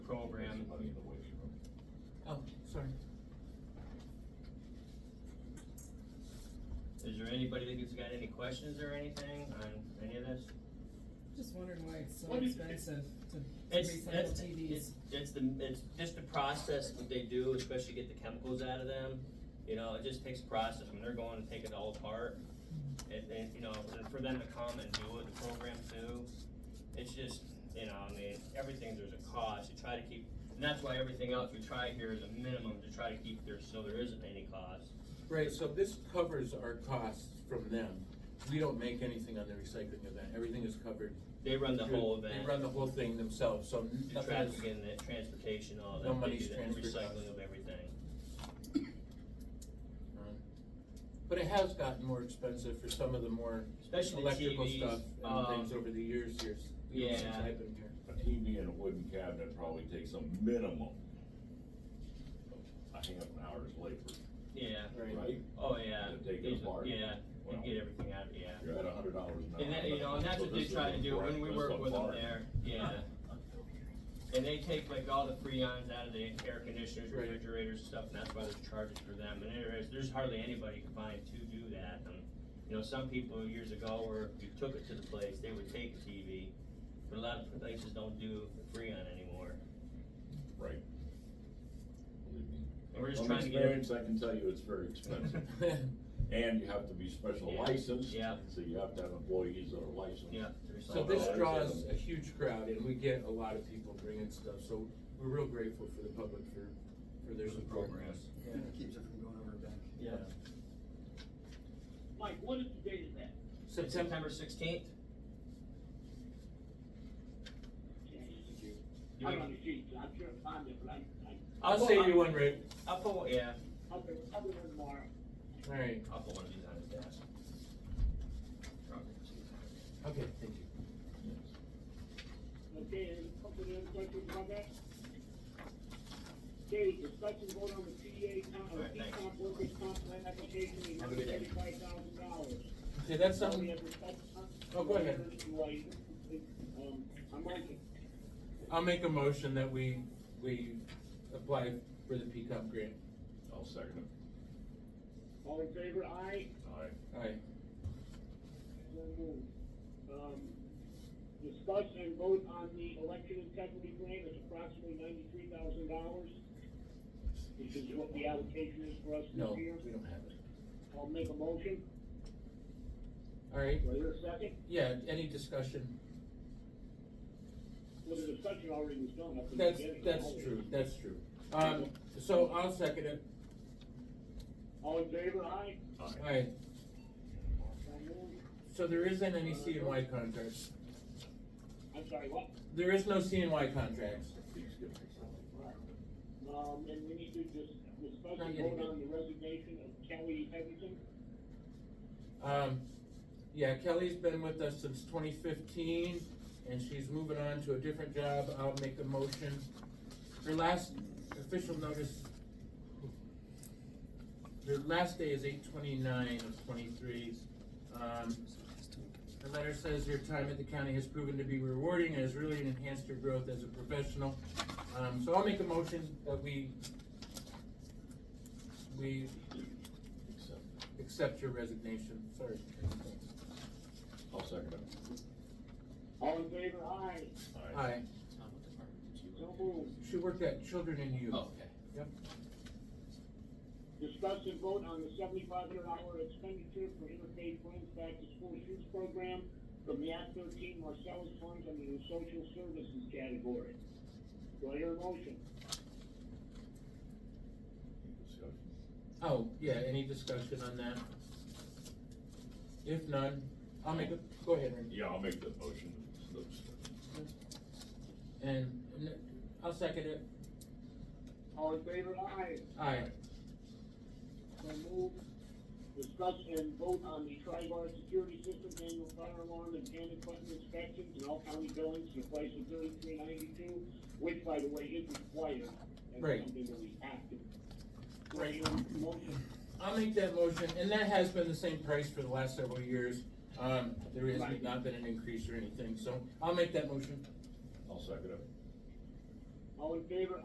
money in the way you run. Oh, sorry. Is there anybody that's got any questions or anything on any of this? Just wondering why it's so What do you- expensive to to It's, recycle that's, TVs. it's, it's the, it's just the process that they do, especially get the chemicals out of them. You know, it just takes a process, I mean, they're going to take it all apart. And, and, you know, and for them to come and do it, the program too, it's just, you know, I mean, everything, there's a cost, you try to keep, and that's why everything else we try here is a minimum to try to keep there, so there isn't any cost. Right, so this covers our costs from them. We don't make anything on the recycling event, everything is covered. They run the whole They event. run the whole thing themselves, so The nothing is, traffic and the transportation, all No that, they money's do the transferred. recycling of everything. but it has gotten more expensive for some of the more Especially the electrical TVs, stuff and things um, over the years here. s- you know, Since yeah. I've been here. A TV in a wooden cabinet probably takes a minimum of a half an hour's labor, Yeah, right? oh, yeah. To take These- it apart. Yeah, Well, and get everything out, yeah. You're at a hundred dollars an hour. And that, you know, and that's So what they this is try a to do when we breakfast work with them apart. there, yeah. And they take like all the freons out of the air conditioners, Right. refrigerators and stuff, and that's why there's charges for them. And there is, there's hardly anybody combined to do that. And, you know, some people years ago where if you took it to the place, they would take a TV, but a lot of places don't do the freon anymore. Right. Believe me. And we're just From trying to get. every- experience, I can tell you it's very expensive. And you have to be special Yeah. licensed. Yeah. So you have to have employees that are licensed. Yeah. to recycle So this those. draws a huge crowd and we get a lot of people bringing stuff, so we're real grateful for the public for, for their For the support. programs. Yeah, it keeps it from going over a bank. Yeah. Mike, what is the date of that? September, September sixteenth? I'm on the street, so I'm sure I'm fine, but I, I, I'll save you one, Rick. I'll put, one- yeah, I'll be, I'll be there tomorrow. All right, I'll put one of these on his desk. okay, thank you. Yes. Okay, any couple of questions about that? Okay, discussion vote on the PDA comp, All or right, thanks. P-comp workers' comp plan application, in the Have a good day. thirty-five thousand dollars. Okay, that's something. We have discussed- Oh, go ahead. Um, I'm Mike. I'll make a motion that we, we apply for the PCOP grant. I'll second it. all in favor, aye? Aye. Aye. So moved. Um, discuss and vote on the election integrity grant, it's approximately ninety-three thousand dollars. This is what the allocation is for us No, this we year. don't have it. I'll make a motion, All right, do I hear a second? yeah, any discussion? Well, the discussion already was done, I think. That's, that's true, that's true. Um, so I'll second it. All in favor, aye? All right, So moved. so there isn't any C and Y contracts. I'm sorry, what? There is no C and Y contracts. Please give me something. Um, and we need to just discuss Not and yet. vote on the resignation of Kelly Henderson. Um, yeah, Kelly's been with us since twenty fifteen, and she's moving on to a different job, I'll make a motion. Her last official notice, her last day is eight twenty-nine of twenty-three. Um, her letter says your time at the county has proven to be rewarding and has really enhanced your growth as a professional. Um, so I'll make a motion that we, we Accept it. accept your resignation, sorry. I'll second it. All in favor, aye? Aye. Tom, what department did you So work in? moved. She worked at Children and Youth. Oh, okay. Yep. Discuss and vote on the seventy-five hundred dollar expenditure for interfaith funds back to school shoots program from the Act thirteen Marcellus funds under the social services category. Do I hear a motion? Discussion. Oh, yeah, any discussion on that? If none, I'll make a, go ahead, Randy. Yeah, I'll make the motion. And, and I'll second it. All in favor, aye? Aye. So moved. Discuss and vote on the tri-bar security system annual fire alarm and panic button inspections in all county buildings for the price of thirty-three ninety-two, which by the way is required. That's Right. Something that we have to. Do I hear a motion? I'll make that motion, and that has been the same price for the last several years. Um, there has Right. not been an increase or anything, so I'll make that motion. I'll second it. All in favor,